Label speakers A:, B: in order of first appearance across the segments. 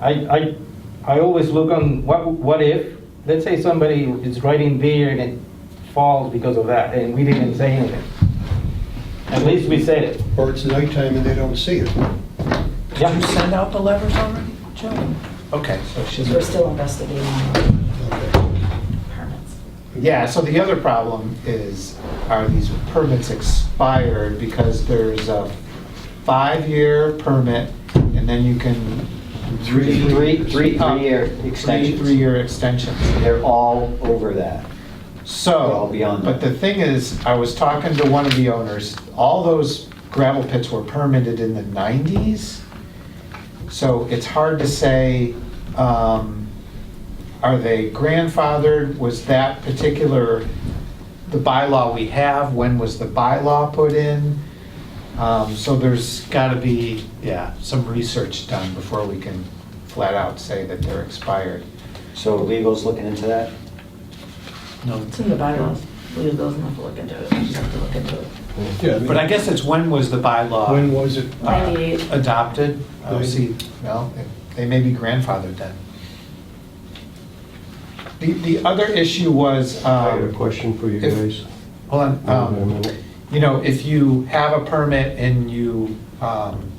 A: I, I, I always look on what, what if, let's say somebody is riding there and it falls because of that, and we didn't say anything. At least we said it.
B: Or it's nighttime and they don't see it.
C: Did you
A: Yeah,
C: send out the letters already, Joe? Okay, so she's,
D: We're still investigating our
B: Okay.
D: permits.
C: yeah, so the other problem is, are these permits expired? Because there's a five-year permit, and then you can.
B: Three.
E: Three, three,
C: up-
E: three-year
C: three-
E: extensions.
C: Three-year extensions.
E: They're all over that.
C: So,
E: Well, beyond
C: but
E: that.
C: the thing is, I was talking to one of the owners, all those gravel pits were permitted in the nineties. So it's hard to say, um, are they grandfathered? Was that particular, the bylaw we have, when was the bylaw put in? Um, so there's gotta be, yeah, some research done before we can flat out say that they're expired.
E: So legal's looking into that?
C: No,
D: It's in the bylaws. We don't have to look into it. We just have to look into it.
B: Yeah,
C: But I guess it's when was the bylaw?
B: When was it?
C: uh,
D: 98.
C: Adopted?
E: Um,
C: Oh,
B: Ninety.
C: see, well, they may be grandfathered then. The, the other issue was,
F: I have a
C: um,
F: question for you
C: if-
F: guys.
C: hold on,
F: Wait a
C: um,
F: minute.
C: you know, if you have a permit and you um,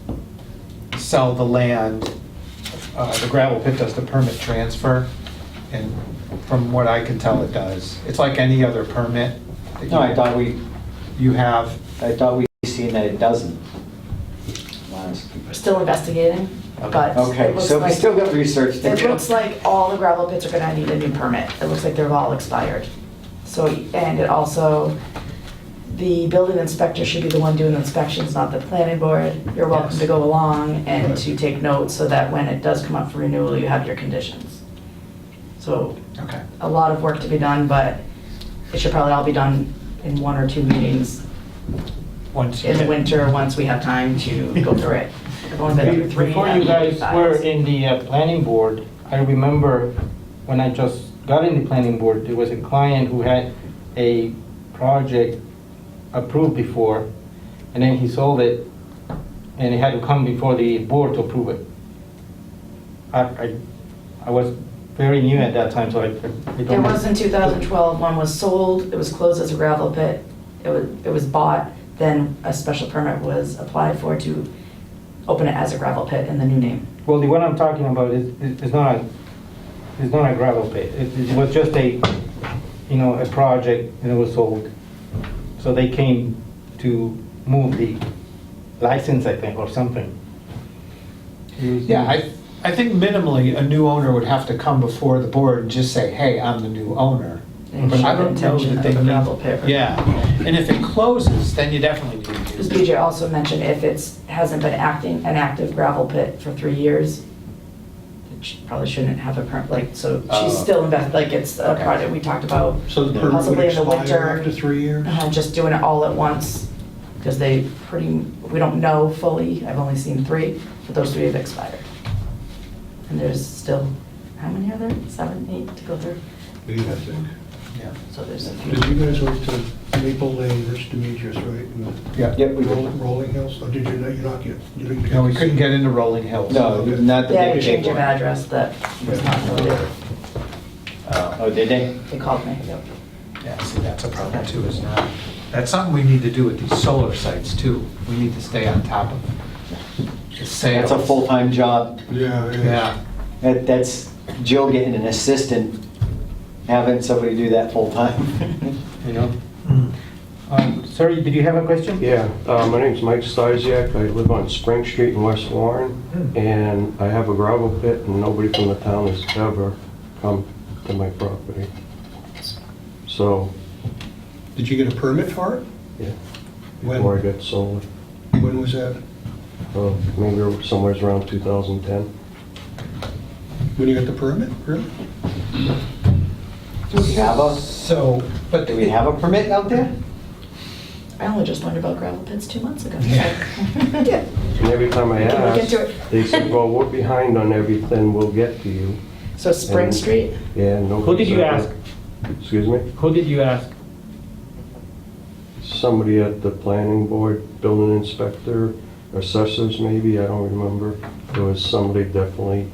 C: sell the land, uh, the gravel pit does the permit transfer, and from what I can tell, it does. It's like any other permit that
E: No, I thought we,
C: you have.
E: I thought we seen that it doesn't. Honest.
D: We're still investigating, but it
E: Okay,
D: looks
E: so we
D: like,
E: still got research to
D: it looks
E: do.
D: like all the gravel pits are gonna need a new permit. It looks like they're all expired. So, and it also, the building inspector should be the one doing inspections, not the planning board. You're welcome
C: Yes.
D: to go along and to take notes so that when it does come up for renewal, you have your conditions. So
C: Okay.
D: a lot of work to be done, but it should probably all be done in one or two meetings
C: Once you
D: in the
C: get-
D: winter, once we have time to go through it. Everyone's been through three.
A: before you guys were in the uh, planning board, I remember when I just got in the planning board, there was a client who had a project approved before, and then he sold it, and it had to come before the board to approve it. I, I, I was very new at that time, so I. I
D: There
A: don't know.
D: was in 2012, one was sold, it was closed as a gravel pit, it was, it was bought, then a special permit was applied for to open it as a gravel pit in the new name.
A: Well, the one I'm talking about is, is is not, is not a gravel pit. It it was just a, you know, a project and it was sold. So they came to move the license, I think, or something.
C: Yeah, I, I think minimally, a new owner would have to come before the board and just say, hey, I'm the new owner.
D: And
C: But I
D: show the
C: don't know
D: intention
C: that
D: of
C: they
D: the
C: need-
D: gravel pit.
C: Yeah, and if it closes, then you definitely need to
D: Because
C: do.
D: BJ also mentioned if it's, hasn't been acting, an active gravel pit for three years, it sh- probably shouldn't have a permit, like, so
C: Oh.
D: she's still invested, like, it's a
C: Okay.
D: project we talked about.
B: Uh, So the permit would
D: possibly in the
B: expire
D: winter.
B: after three years?
D: uh, Just doing it all at once, because they pretty, we don't know fully, I've only seen three, but those three have expired. And there's still, how many are there? Seven, eight to go through?
B: Yeah, I think.
C: Yeah.
D: So there's a
B: Did you
D: few.
B: guys went to Maple Lane, Rich Demetrius, right? and
C: Yeah.
E: Yep, we
B: Roll-
E: did.
B: Rolling Hills, or did you, no, you're not get? you didn't get
C: No, we
B: to
C: couldn't
B: see-
C: get into Rolling Hills.
E: No, not the
D: They had a
E: big
D: change
E: big
D: of
E: one.
D: address that was not noted.
E: Oh, did they?
D: They called me.
C: Yeah, see, that's a problem too, is not, that's something we need to do with these solar sites too. We need to stay on top of the sales.
E: That's a full-time job.
B: Yeah, yeah.
C: Yeah,
E: That, that's Jill getting an assistant, having somebody do that full-time.
A: You know?
C: Mm-hmm.
A: Um, Sorry, did you have a question?
F: Yeah, uh, my name's Mike Stasiak. I live on Spring Street in West Warren, and I have a gravel pit, and nobody from the town has ever come to my property. So,
B: Did you get a permit for it?
F: yeah, before I
B: When,
F: got sold,
B: when was that?
F: uh, maybe somewhere around 2010.
B: When you got the permit, really?
E: Do we have a,
C: so, but.
E: do we have a permit out there?
D: I only just learned about gravel pits two months ago.
C: Yeah.
F: And every time
D: We
F: I
D: can look
F: ask,
D: into it.
F: they said, well, we're behind on everything, we'll get to you.
D: So Spring Street,
F: Yeah, no.
A: Who did you ask?
F: Excuse me?
A: Who did you ask?
F: Somebody at the planning board, building inspector, assessors maybe, I don't remember. There was somebody definitely